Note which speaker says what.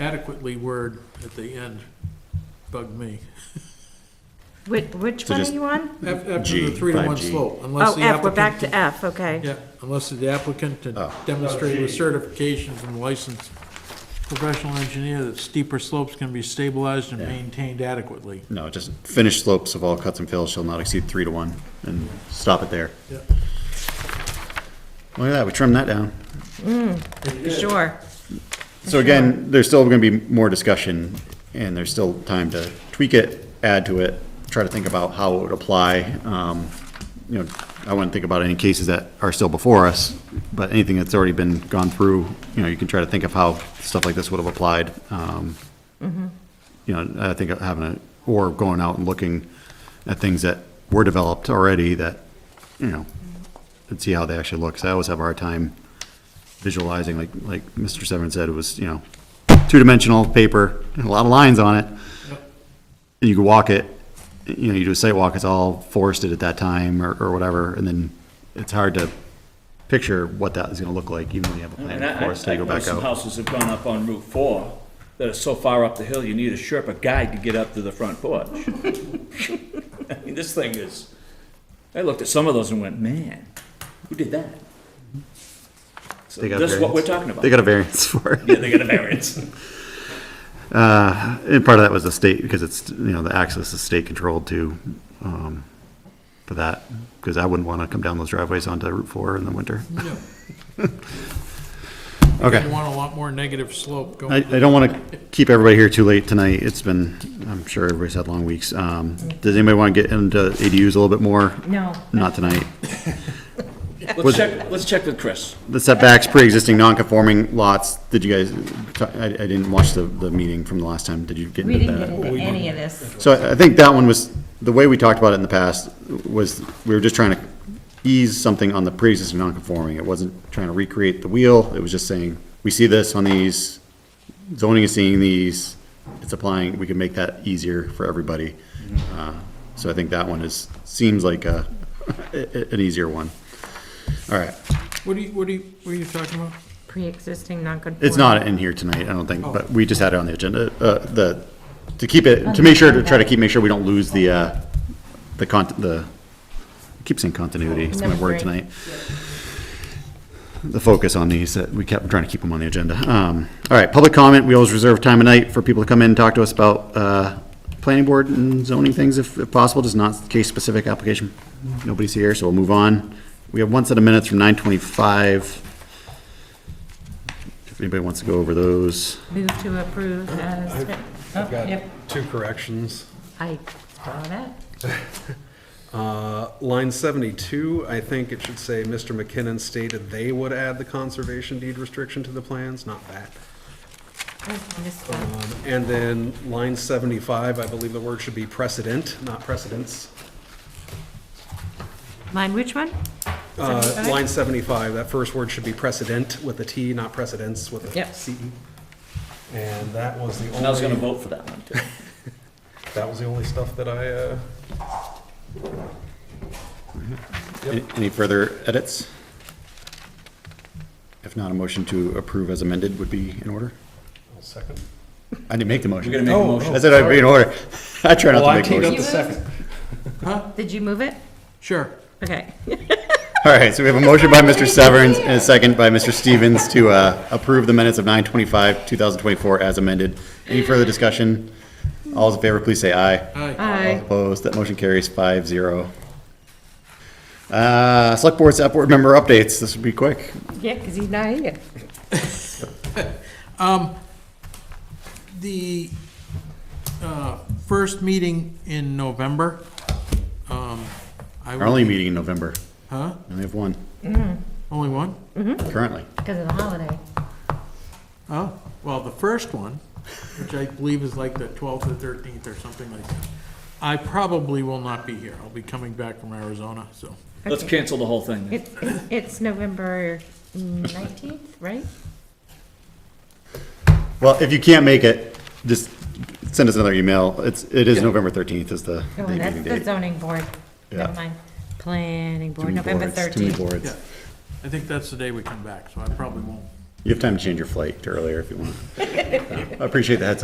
Speaker 1: adequately word at the end bugged me.
Speaker 2: Which, which
Speaker 3: So
Speaker 2: one are
Speaker 3: just-
Speaker 2: you on?
Speaker 1: Af- After
Speaker 3: G,
Speaker 1: the three to one
Speaker 3: 5G.
Speaker 1: slope, unless
Speaker 2: Oh,
Speaker 1: the
Speaker 2: F, we're back
Speaker 1: applicant.
Speaker 2: to F, okay.
Speaker 1: Yeah, unless the applicant can
Speaker 3: Oh.
Speaker 1: demonstrate with certifications and license professional engineer that steeper slopes can be stabilized and maintained adequately.
Speaker 3: No, just finished slopes of all cuts and fills shall not exceed three to one, and stop it there.
Speaker 1: Yep.
Speaker 3: Look at that, we trimmed that down.
Speaker 2: For Sure.
Speaker 3: So again, there's still gonna be more discussion, and there's still time to tweak it, add to it, try to think about how it would apply. Um, You know, I wouldn't think about any cases that are still before us, but anything that's already been gone through, you know, you can try to think of how stuff like this would have applied. Um, You know, I think having a, or going out and looking at things that were developed already that, you know, and see how they actually look, 'cause I always have a hard time visualizing, like, like Mr. Severin said, it was, you know, two-dimensional paper, and a lot of lines on it. And you could walk it, you know, you do a site walk, it's all forested at that time, or, or whatever, and then it's hard to picture what that is gonna look like, even when you have a plan,
Speaker 4: And
Speaker 3: of
Speaker 4: I, I
Speaker 3: course, to
Speaker 4: I
Speaker 3: go
Speaker 4: know
Speaker 3: back
Speaker 4: some
Speaker 3: out.
Speaker 4: houses have gone up on Route Four that are so far up the hill, you need a Sherpa guide to get up to the front porch. I mean, this thing is, I looked at some of those and went, man, who did that? So
Speaker 3: They got a
Speaker 4: this is what we're
Speaker 3: variance.
Speaker 4: talking about.
Speaker 3: They got a variance for it.
Speaker 4: Yeah, they got a variance.
Speaker 3: And part of that was the state, because it's, you know, the access is state controlled too, um, for that, because I wouldn't wanna come down those driveways onto Route Four in the winter.
Speaker 1: Yeah.
Speaker 3: Okay.
Speaker 1: You want a lot more negative slope
Speaker 3: I,
Speaker 1: going.
Speaker 3: I don't want to keep everybody here too late tonight. It's been, I'm sure everybody's had long weeks. Um, does anybody want to get into ADUs a little bit more?
Speaker 2: No.
Speaker 3: Not tonight.
Speaker 4: Let's check, let's check with Chris.
Speaker 3: The setbacks, pre-existing non-conforming lots, did you guys, I, I didn't watch the, the meeting from the last time. Did you get
Speaker 2: We
Speaker 3: into
Speaker 2: didn't get
Speaker 3: that?
Speaker 2: into any of this.
Speaker 3: So I, I think that one was, the way we talked about it in the past was, we were just trying to ease something on the pre-existing non-conforming. It wasn't trying to recreate the wheel. It was just saying, we see this on these, zoning is seeing these, it's applying, we can make that easier for everybody. Uh, So I think that one is, seems like a, a- an easier one. All right,
Speaker 1: What do you, what do you, what are you talking about?
Speaker 2: Pre-existing non-conforming.
Speaker 3: it's not in here tonight, I don't think, but we just had it on the agenda, uh, the, to keep it, to make sure, to try to keep, make sure we don't lose the, uh, the con, the, I keep saying continuity, it's my
Speaker 2: Number
Speaker 3: word
Speaker 2: three.
Speaker 3: tonight. The focus on these, that we kept trying to keep them on the agenda. Um, all right, public comment, we always reserve time of night for people to come in and talk to us about, uh, planning board and zoning things if, if possible, just not case-specific application. Nobody's here, so we'll move on. We have one set of minutes from nine twenty-five. If anybody wants to go over those.
Speaker 2: Move to approve as, oh,
Speaker 5: I've got
Speaker 2: yep,
Speaker 5: two corrections.
Speaker 2: I saw that.
Speaker 5: Uh, Line 72, I think it should say, Mr. McKinnon stated they would add the conservation deed restriction to the plans, not that.
Speaker 2: Oh, I missed that.
Speaker 5: Um, And then line 75, I believe the word should be precedent, not precedence.
Speaker 2: Mine, which one?
Speaker 5: Uh,
Speaker 2: 75?
Speaker 5: Line 75, that first word should be precedent with a T, not precedence with a
Speaker 2: Yep.
Speaker 5: C. And that was the only.
Speaker 4: And I was gonna vote for that one too.
Speaker 5: That was the only stuff that I, uh,
Speaker 3: Any any further edits? If not, a motion to approve as amended would be in order?
Speaker 5: I'll second.
Speaker 3: I didn't make the motion.
Speaker 4: We're gonna make a
Speaker 5: Oh,
Speaker 4: motion.
Speaker 3: I said I'd be in order. I try not to
Speaker 5: Well, Oh, I
Speaker 3: make
Speaker 5: teed up the
Speaker 3: motions.
Speaker 5: second.
Speaker 2: Did you move it?
Speaker 1: Sure.
Speaker 2: Okay.
Speaker 3: All right, so we have a motion by Mr. Severns and a second by Mr. Stevens to uh, approve the minutes of 9:25, 2024 as amended. Any further discussion? All those in favor, please say aye.
Speaker 1: Hi.
Speaker 3: All
Speaker 2: Aye.
Speaker 3: Opposed, that motion carries five zero. Uh, select board's select board member updates, this would be quick.
Speaker 2: Yeah, because he's not here.
Speaker 1: The uh, first meeting in November. um, I
Speaker 3: Our
Speaker 1: will-
Speaker 3: only meeting in November,
Speaker 1: Huh?
Speaker 3: we only have one
Speaker 1: Only one?
Speaker 3: currently.
Speaker 2: Because of the holiday.
Speaker 1: Oh, well, the first one, which I believe is like the 12th or 13th or something like that, I probably will not be here. I'll be coming back from Arizona, so.
Speaker 4: Let's cancel the whole thing.
Speaker 2: It's, it's November 19th, right?
Speaker 3: Well, if you can't make it, just send us another email. It's, it is November 13th is the the
Speaker 2: Oh,
Speaker 3: meeting
Speaker 2: that's the
Speaker 3: date.
Speaker 2: zoning board. Never
Speaker 3: Yeah.
Speaker 2: mind. Planning
Speaker 3: Too
Speaker 2: board,
Speaker 3: many
Speaker 2: November
Speaker 3: boards, Too many
Speaker 2: 13th.
Speaker 3: boards.
Speaker 1: Yeah, I think that's the day we come back, so I probably won't
Speaker 3: You have time to change your flight to earlier if you want. I appreciate the heads up.